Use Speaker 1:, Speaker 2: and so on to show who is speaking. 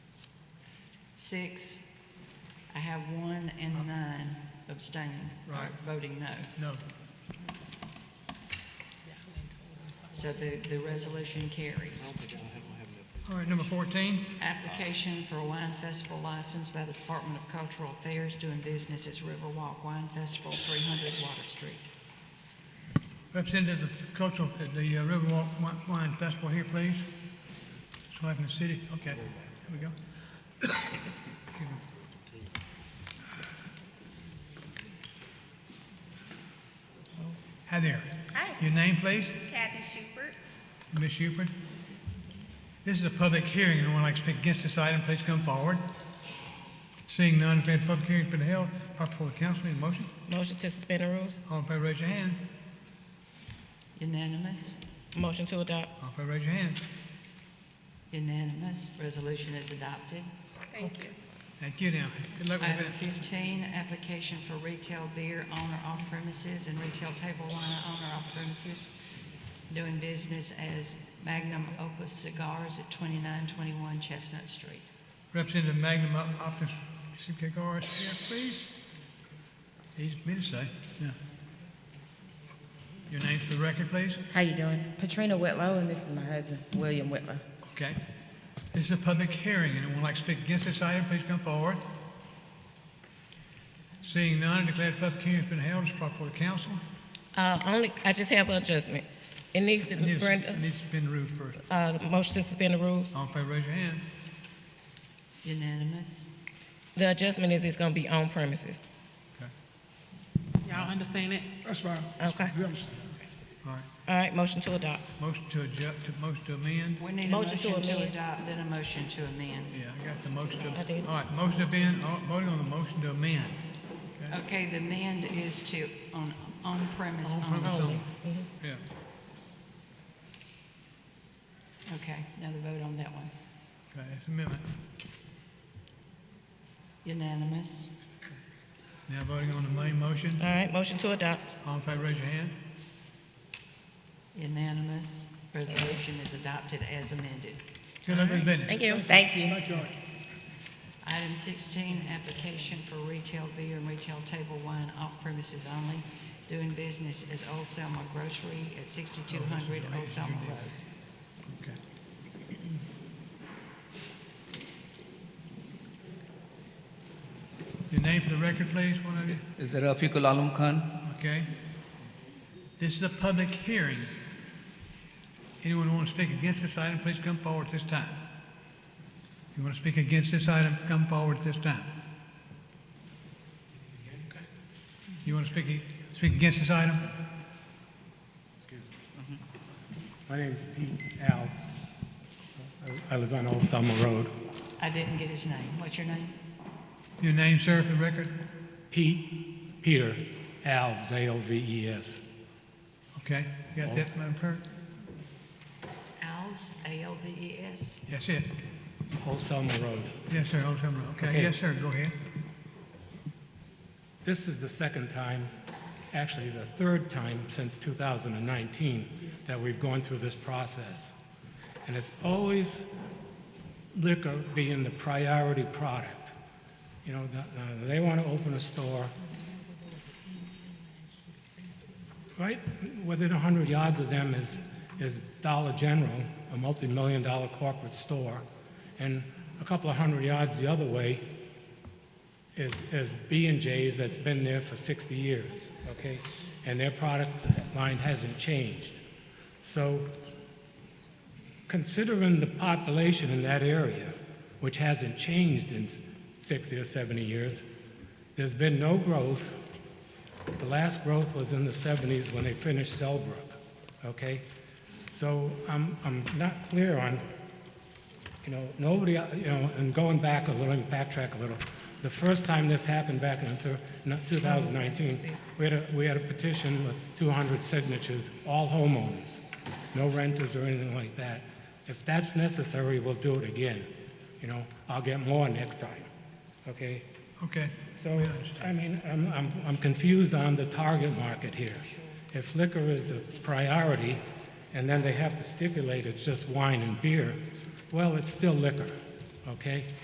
Speaker 1: six, I have one and nine abstaining, or
Speaker 2: Right.
Speaker 1: voting no.
Speaker 2: No.
Speaker 1: So the, the resolution carries.
Speaker 2: All right, number 14,
Speaker 1: Application for a wine festival license by the Department of Cultural Affairs doing business as Riverwalk Wine Festival, 300 Water Street.
Speaker 2: representative of cultural, uh, the uh, Riverwalk Wi- Wine Festival here, please. So having the city, okay, here we go. Excuse me. Hi there.
Speaker 3: Hi,
Speaker 2: Your name, please?
Speaker 3: Kathy Schubert.
Speaker 2: Ms. Hubert? This is a public hearing. Anyone like to speak against this item, please come forward. Seeing none, declare the public hearing's been held. Proper before the council, need a motion?
Speaker 4: Motion to suspend the rules.
Speaker 2: All in favor, raise your hand.
Speaker 1: Unanimous?
Speaker 4: Motion to adopt.
Speaker 2: All in favor, raise your hand.
Speaker 1: Unanimous. Resolution is adopted.
Speaker 3: Thank you.
Speaker 2: Thank you now. Good luck with the
Speaker 1: Item
Speaker 2: event.
Speaker 1: 15, application for retail beer owner off premises and retail table wine owner off premises doing business as Magnum Opus Cigars at 2921 Chestnut Street.
Speaker 2: Representative Magnum Op- Optus Cigar is here, please. Easy for me to say, yeah. Your name for the record, please.
Speaker 5: How you doing? Patrina Whitlow, and this is my husband, William Whitlow.
Speaker 2: Okay. This is a public hearing. Anyone like to speak against this item, please come forward. Seeing none, I declare the public hearing's been held. It's proper for the council.
Speaker 4: Uh, only, I just have an adjustment. It needs
Speaker 2: I
Speaker 4: to
Speaker 2: need
Speaker 4: be,
Speaker 2: to- I
Speaker 4: Brenda,
Speaker 2: need to suspend the rules first.
Speaker 4: uh, motion to suspend the rules.
Speaker 2: All in favor, raise your hand.
Speaker 1: Unanimous?
Speaker 4: The adjustment is it's gonna be on premises.
Speaker 2: Okay.
Speaker 6: Y'all understand it?
Speaker 7: That's fine.
Speaker 4: Okay.
Speaker 7: We understand.
Speaker 2: All right.
Speaker 4: All right, motion to adopt.
Speaker 2: Motion to adjust, to, motion to amend.
Speaker 1: We need a
Speaker 4: Motion to
Speaker 1: motion to
Speaker 4: amend.
Speaker 1: adopt, then a motion to amend.
Speaker 2: Yeah, I got the motion to.
Speaker 4: I did.
Speaker 2: All right, motion to amend, all- voting on the motion to amend.
Speaker 1: Okay, the amend is to, on, on premise
Speaker 2: On premise
Speaker 1: only.
Speaker 2: only.
Speaker 4: Mm-hmm.
Speaker 2: Yeah.
Speaker 1: Okay, now the vote on that one.
Speaker 2: Okay, that's amendment.
Speaker 1: Unanimous?
Speaker 2: Now voting on the main motion.
Speaker 4: All right, motion to adopt.
Speaker 2: All in favor, raise your hand.
Speaker 1: Unanimous. Resolution is adopted as amended.
Speaker 2: Good luck with business.
Speaker 4: Thank you.
Speaker 5: Thank you.
Speaker 7: Thank y'all.
Speaker 1: Item 16, application for retail beer and retail table wine off premises only, doing business as Old Selma Grocery at 6200 Old Selma Road.
Speaker 2: Okay. Your name for the record, please, one of you.
Speaker 8: Is there Rafiqul Alam Khan?
Speaker 2: Okay. This is a public hearing. Anyone want to speak against this item, please come forward at this time. If you want to speak against this item, come forward at this time. You want to speak, speak against this item?
Speaker 9: My name's Pete Alves. I- I live on Old Selma Road.
Speaker 1: I didn't get his name. What's your name?
Speaker 2: Your name, sir, for the record?
Speaker 9: Pete, Peter Alves, A-L-V-E-S.
Speaker 2: Okay, you got that, Madam Clerk?
Speaker 1: Alves, A-L-V-E-S.
Speaker 2: That's it.
Speaker 9: Old Selma Road.
Speaker 2: Yes, sir, Old Town Road. Okay,
Speaker 9: Okay.
Speaker 2: yes, sir, go ahead.
Speaker 9: This is the second time, actually the third time since 2019, that we've gone through this process. And it's always liquor being the priority product. You know, the- uh, they want to open a store, right, within 100 yards of them is, is Dollar General, a multi-million dollar corporate store, and a couple of hundred yards the other way is, is B and J's that's been there for 60 years, okay? And their product line hasn't changed. So considering the population in that area, which hasn't changed in s- 60 or 70 years, there's been no growth. The last growth was in the 70s when they finished Selbrook, okay? So I'm, I'm not clear on you know, nobody, uh, you know, and going back a little, backtrack a little, the first time this happened back in thir- no, 2019, we had a, we had a petition with 200 signatures, all homeowners, no renters or anything like that. If that's necessary, we'll do it again, you know, I'll get more next time, okay?
Speaker 2: Okay.
Speaker 9: So, I mean, I'm, I'm, I'm confused on the target market here. If liquor is the priority, and then they have to stipulate it's just wine and beer, well, it's still liquor, okay?